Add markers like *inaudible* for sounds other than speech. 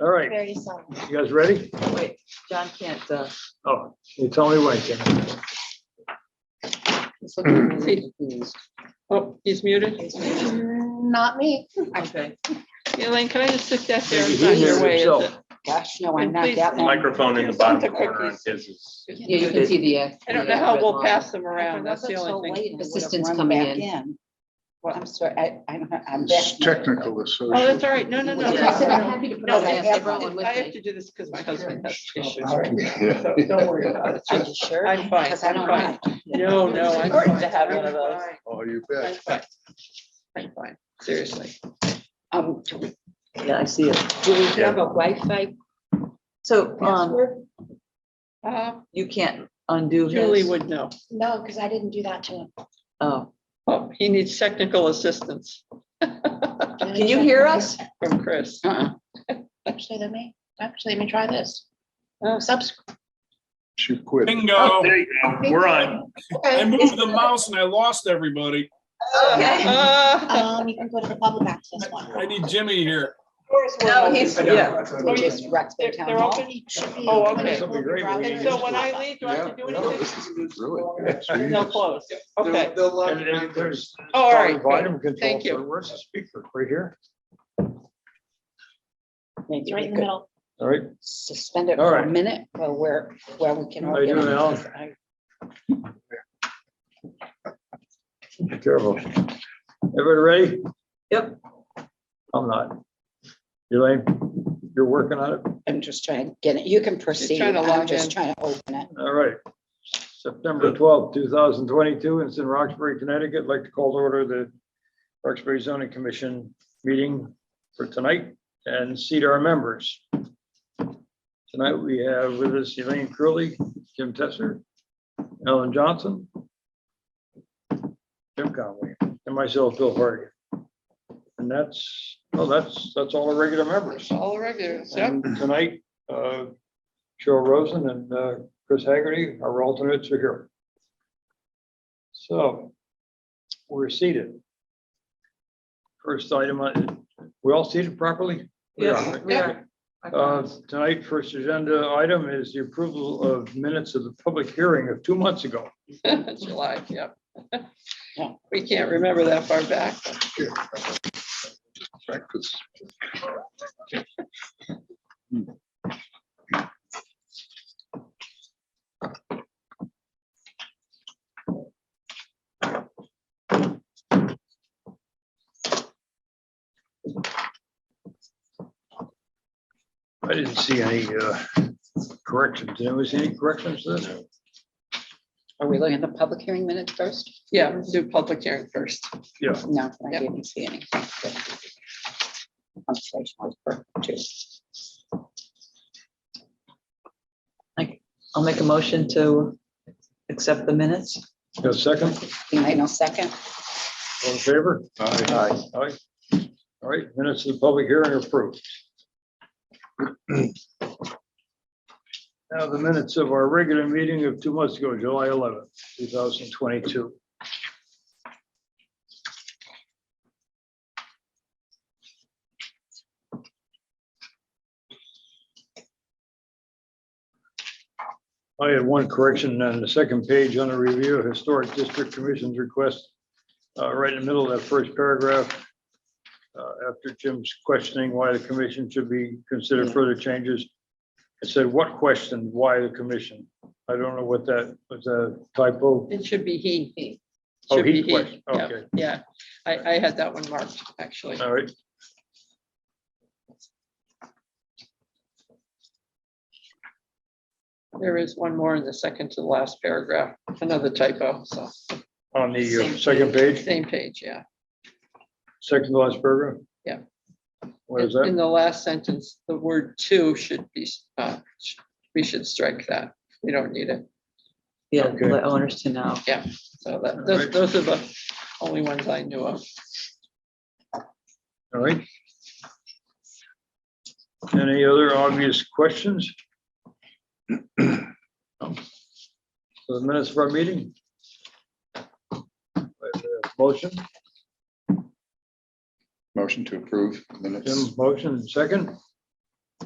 All right, Very soon. you guys ready? Wait, John can't, uh, Oh, it's only way, Jim. he's looking really confused. Oh, he's muted? Mm, Not me. Okay. Elaine, can I just sit that there? Maybe It's he not your muted way, is himself. it? Gosh, no, I'm not Please. that one. Microphone in the bottom corner on his is. Yeah, you can see the. uh, I don't the, know uh, how red we'll line. pass them If it around. That's the wasn't so only late, I thing. would have Assistant's run coming back in. Well, I'm sorry, I, I'm, I'm back. It's now. technical, it's so. Oh, that's all right. No, *laughs* no, no. Yeah. I said I'm no. happy to put No, all I that have stuff one. on with I have me. to do this because my husband has issues. *laughs* Yeah. So Don't worry about it. Are you sure? I'm fine, Because I I'm don't fine. know. No, no, I'm Important fine. to have one of I'm those. fine. Oh, you I'm bet. fine. I'm fine, seriously. Um, Yeah, I see it. Do we have a Wi-Fi? So, um, Uh, you can't undo his. Julie would know. No, because I didn't do that to him. Oh, Oh, he needs technical assistance can you hear us? from Chris. Uh-uh. Actually, let me, actually, let me try this. Oh. Subs. She quit. Bingo. Oh, There you go. We're on. I moved the mouse and I lost everybody. *laughs* Okay. Uh, *laughs* Ah, Um, you can go to the public access one. I need Jimmy here. No, he's, yeah. Oh, yeah. They're they're open. It should be- Oh, okay. That'd be great. And so when I leave, do I have to do anything? Really? They'll close. Okay. And then there's Oh, All right. Volume control. Thank you. for- Where's the speaker? Right here? Maybe It's we right in the could middle. All right. Suspend it All for a right. minute, or where, where we can. How you doing, organize this. I- Be careful. Everybody ready? Yep. I'm not. Elaine, you're working on it? I'm just trying to get it. You can proceed. trying to I'm log just in. trying to open it. All right. September twelfth, two thousand twenty-two, it's in Roxbury, Connecticut. I'd Like to call to order the Roxbury zoning commission meeting for tonight and seat our members. Tonight, we have with us Elaine Curley, Jim Tesser, Ellen Johnson, Jim Conway, and myself, Bill Hargan. And that's, oh, that's, that's all the regular members. All regulars, yep. And tonight, uh, Cheryl Rosen and uh, Chris Haggerty, our alternates are here. So we're seated. First item, on- we all seated properly? We are, Yes, right? we are. I Uh, promise. Tonight, first agenda item is the approval of minutes of the public hearing of two months ago. *laughs* July, yep. Yeah. *laughs* We can't remember that far back. Practice. I didn't see any uh, corrections. Did anyone see any corrections to this? Are we looking at the public hearing minutes first? Yeah, do public hearing first. Yeah. No, I Yep. didn't see any. Conversational for two. I'll make a motion to accept the minutes. Got a second? Elaine, a second. All in favor? Aye. Aye. Aye. All right, minutes of the public hearing are approved. Now the minutes of our regular meeting of two months ago, July eleventh, two thousand twenty-two. I had one correction on the second page on the review of Historic District Commission's request uh, right in the middle of that first paragraph, uh, after Jim's questioning why the commission should be considered further changes, it said, what question, why the commission? I don't know what that was a typo. It should be he. He. Oh, Should be he question, yeah, okay. Uh. Yeah, I, I had that one marked, actually. All right. There is one more in the second to the last paragraph, another typo, so. On the uh, second page, Same page, yeah. second to last paragraph? Yeah. What is In that? the last sentence, the word two should be, uh, sh- we should strike that. We don't need it. Yeah, Okay. let owners to know. So that, those, Alright. those are the only ones I knew of. All right. Any other obvious questions? No. So the minutes of our meeting? Uh, Motion? Motion to approve minutes. Jim, motion, second,